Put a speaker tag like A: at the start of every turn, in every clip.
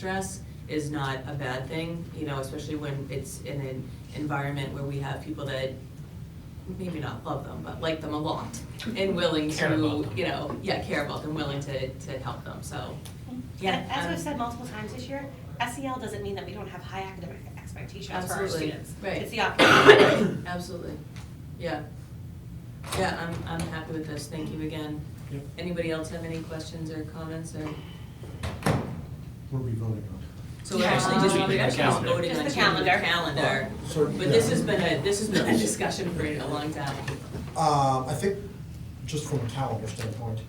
A: stress is not a bad thing, you know, especially when it's in an environment where we have people that maybe not love them, but like them a lot and willing
B: Care about
A: to,
B: them.
A: you know, yeah, care about them, willing to, to help them, so, yeah.
C: And As
A: um,
C: we've said multiple times this year, SEL doesn't mean that we don't have high academic expectations for our
A: Absolutely,
C: students.
A: right.
C: It's the opposite.
A: Absolutely, yeah. Yeah, I'm, I'm happy with this, thank you again.
B: Yep.
A: Anybody else have any questions or comments or,
D: What are we voting on?
A: so we're actually just,
B: Yeah.
A: we actually just
B: Calendar.
A: voting on
C: Just the
A: changing the
C: calendar.
A: calendar.
D: So,
A: But this
D: yeah.
A: has been a, this has been a discussion for a long time.
D: Uh, I think, just from a calendar standpoint,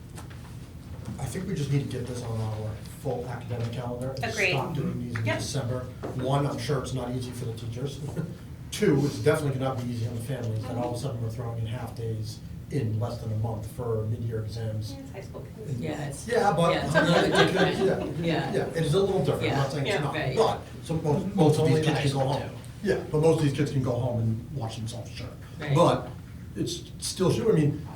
D: I think we just need to get this on our full academic calendar. and
C: Agreed.
D: Stop doing these in
C: Yep.
D: December. One, I'm sure it's not easy for the teachers. Two, it's definitely gonna not be easy on the families, that all of a sudden we're throwing in half-days in less than a month for mid-year exams.
C: It's high school.
D: And-
A: Yeah, it's-
D: Yeah, but,
A: yeah.
D: yeah,
A: Yeah.
D: yeah, yeah, it is a little different, I'm not saying
A: Yeah,
D: it's not,
A: right.
D: but some, most, most of
B: Only
D: these
B: in
D: kids
B: high
D: can go
B: school,
D: home.
B: too.
D: Yeah, but most of these kids can go home and watch themselves, sure.
A: Right.
D: But it's still, sure, I mean,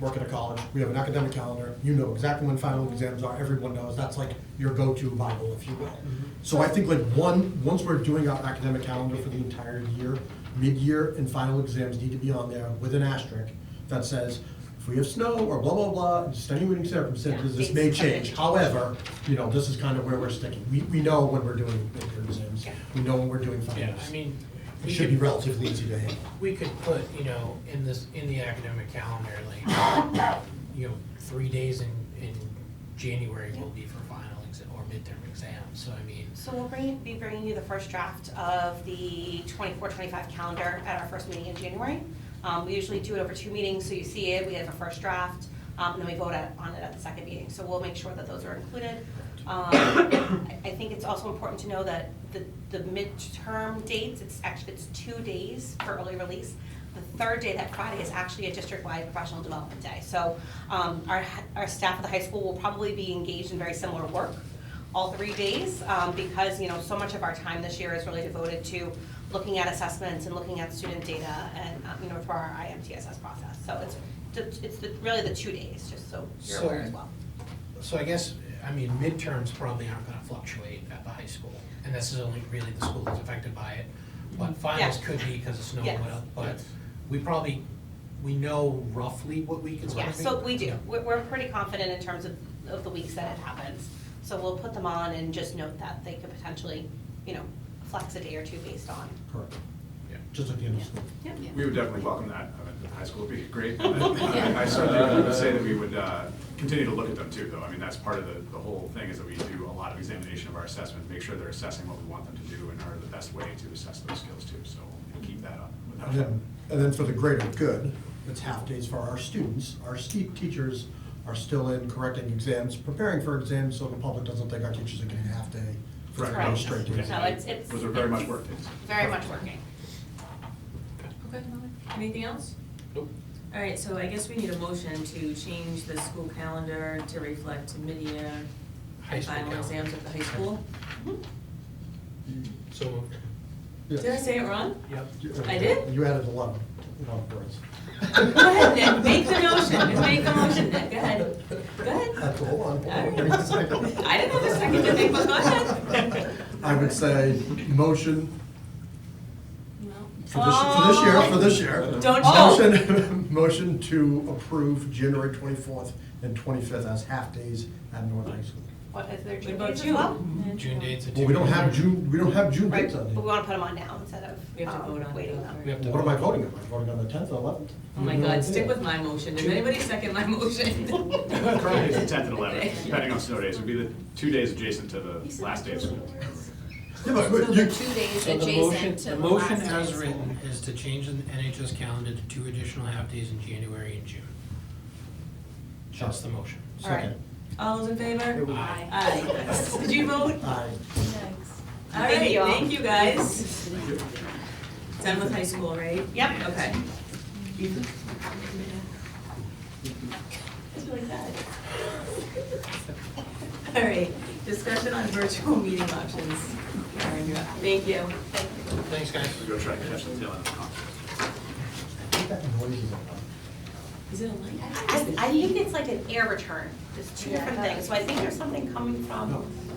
D: work at a college, we have an academic calendar, you know exactly when final exams are, everyone knows, that's like your go-to Bible, if you will.
A: Mm-hmm.
D: So I think like one, once we're doing our academic calendar for the entire year, mid-year and final exams need to be on there with an asterisk that says, if we have snow or blah, blah, blah, extenuating circumstances, this may change. However, you know, this is kind of where we're sticking. We, we know when we're doing mid-year exams, we know when we're doing
B: Yeah,
D: finals.
B: I mean.
D: It
B: we could-
D: should be relatively easy to handle.
B: We could put, you know, in this, in the academic calendar, like, you know, three days in, in January will be for final exam, or midterm exams, so I mean,
C: So we'll bring, be bringing you the first draft of the 24-25 calendar at our first meeting in January. Um, we usually do it over two meetings, so you see it, we have a first draft, um, and then we vote at- on it at the second meeting. So we'll make sure that those are included. Um, I, I think it's also important to know that the, the midterm dates, it's actually, it's two days for early release. The third day, that Friday, is actually a district-wide professional development day. So, um, our, h- our staff at the high school will probably be engaged in very similar work all three days, um, because, you know, so much of our time this year is really devoted to looking at assessments and looking at student data and, um, you know, for our IMTSS process. So it's, the- it's the- really the two days, just so you're
B: So-
C: aware as well.
B: so I guess, I mean, midterms probably aren't gonna fluctuate at the high school, and this is only really the school that's affected by it. But finals
C: Mm-hmm. Yeah.
B: could be because of snow,
C: Yes.
B: but, but we probably, we know roughly what week it's gonna
C: Yeah,
B: be.
C: so we do,
B: Yeah.
C: we're, we're pretty confident in terms of, of the weeks that it happens. So we'll put them on and just note that they could potentially, you know, flex a day or two based on.
D: Correct.
B: Yeah.
D: Just like the end of school.
C: Yep.
E: We would definitely welcome that. I mean, the High school would be great. I I certainly would say that we would uh, continue to look at them too, though. I mean, that's part of the, the whole thing is that we do a lot of examination of our assessment, make sure they're assessing what we want them to do and are the best way to assess those skills too. So we'll keep that up.
D: And then, and then for the greater good, it's half days for our students. Our steep teachers are still in correcting exams, preparing for exams, so the public doesn't think our teachers are getting a half day for
E: Right.
D: no straight days.
C: So it's, it's.
E: Those are very much worked in.
C: Very much working.
A: Okay, anything else?
B: Nope.
A: All right, so I guess we need a motion to change the school calendar to reflect mid-year
B: High school
A: final
B: calendar.
A: exams at the high school.
B: So moved.
A: Did I say it wrong?
B: Yep.
A: I did?
D: You added a lot, a lot of words.
A: Go ahead, Nick, make the motion, make the motion, Nick, go ahead. Go ahead.
D: That's all on. hold on, give me a second.
A: I didn't have a second to think, but go ahead.
D: I would say motion for this, for this year, for this year.
A: Oh. Don't-
D: Motion, motion to approve January twenty-fourth and twenty-fifth as half days at North High School.
C: What is their
A: What
C: due
A: about
C: dates as
A: you?
C: well?
B: June dates are
D: Well, we don't have
B: two.
D: June, we don't have June
C: Right,
D: dates
C: but
D: on
C: we
D: here.
C: want to put them on now instead
A: We
C: of
A: have to vote on
C: um,
A: it,
C: waiting
A: don't
C: them.
A: worry.
B: We have to
D: What am I
B: vote.
D: voting on? Am I voting on the tenth or eleventh?
A: Oh my God, stick with my motion, did anybody second my motion?
E: Currently, it's the tenth and eleventh, depending on snow days. It would be the two days adjacent to the last day of school.
D: Yeah, but-
F: So
D: but
F: the
D: you-
F: two days
B: So the motion,
F: adjacent to
B: the
F: the
B: motion
F: last
B: as
F: day's.
B: written is to change the NHS calendar to two additional half-days in January and June. That's the motion.
D: Second.
A: All those in favor?
B: Aye.
A: Aye. Did you vote?
D: Aye.
A: All
C: Thank
A: right,
C: you all.
A: thank you guys. Done with high school, right?
C: Yep.
A: Okay. All right, discussion on virtual meeting options. Karen, you're up. Thank you.
B: Thanks, guys.
E: Go try to catch the tail end of the conference.
D: What that noise is about?
A: Is it a link?
C: I, I think it's like an air return, there's two different things, so I think there's something coming from